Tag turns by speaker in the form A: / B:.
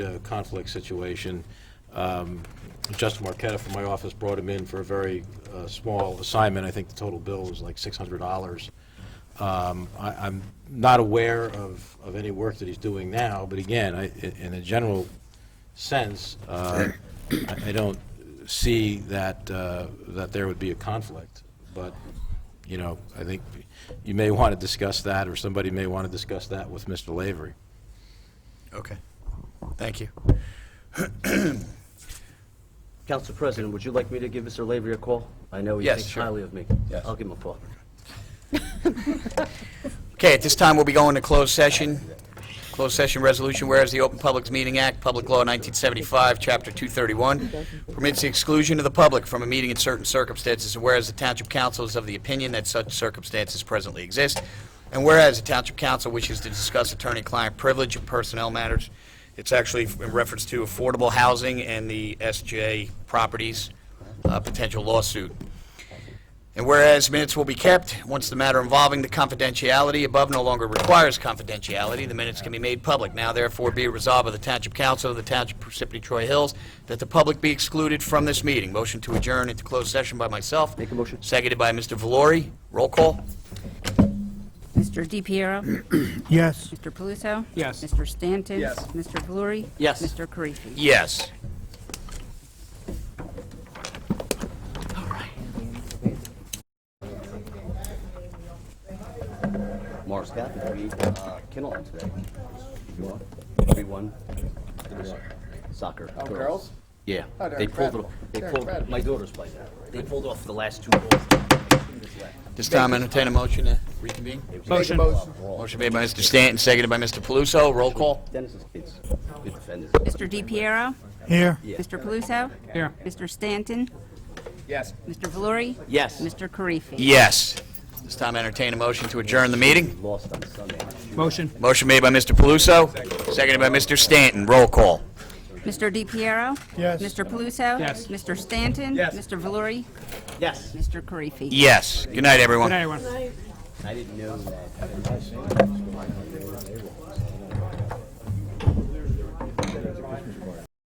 A: uh, conflict situation. Um, Justin Marqueta from my office brought him in for a very uh, small assignment. I think the total bill was like $600. Um, I- I'm not aware of, of any work that he's doing now, but again, I- i- in a general sense, uh, I I don't see that, uh, that there would be a conflict, but, you know, I think you may want to discuss that, or somebody may want to discuss that with Mr. Lavery.
B: Okay, thank you.
C: Council President, would you like me to give Mr. Lavery a call? I know he
B: Yes,
C: thinks
B: sure.
C: highly of me.
B: Yes.
C: I'll give him a call.
B: Okay, at this time, we'll be going to closed session. Closed session resolution, whereas the Open Publics Meeting Act, Public Law 1975, Chapter 231, permits the exclusion of the public from a meeting in certain circumstances, and whereas the Township Council is of the opinion that such circumstances presently exist, and whereas the Township Council wishes to discuss attorney-client privilege and personnel matters, it's actually in reference to affordable housing and the SJ properties uh, potential lawsuit. And whereas minutes will be kept, once the matter involving the confidentiality above no longer requires confidentiality, the minutes can be made public. Now therefore be it resolved by the Township Council of the Township of Parsippany Troy Hills that the public be excluded from this meeting. Motion to adjourn into closed session by myself.
C: Make a motion.
B: Seconded by Mr. Valori. Roll call.
D: Mr. DePiero?
E: Yes.
D: Mr. Paluso?
E: Yes.
D: Mr. Stanton?
E: Yes.
D: Mr. Valori?
C: Yes.
D: Mr. Karifi?
B: Yes.
C: Morris Catholic, we, uh, Kinnell today. You are? We won. Soccer.
F: Oh, girls?
C: Yeah.
F: Oh, they're
C: They pulled it,
F: incredible.
C: they
F: They're
C: pulled,
F: incredible.
C: my daughter's playing that. They pulled off the last two goals.
B: This time entertain a motion to reconvene.
E: Motion.
B: Motion made by Mr. Stanton, seconded by Mr. Paluso. Roll call.
C: Dennis's kids, good defenders.
D: Mr. DePiero?
E: Here.
D: Mr. Paluso?
E: Here.
D: Mr. Stanton?
F: Yes.
D: Mr. Valori?
C: Yes.
D: Mr. Karifi?
B: Yes. This time entertain a motion to adjourn the meeting.
C: Lost on Sunday.
E: Motion.
B: Motion made by Mr. Paluso, seconded by Mr. Stanton. Roll call.
D: Mr. DePiero?
E: Yes.
D: Mr. Paluso?
E: Yes.
D: Mr. Stanton?
F: Yes.
D: Mr. Valori? Yes. Mr. Karifi?
B: Yes. Good night, everyone.
E: Good night, everyone.
C: I didn't know that.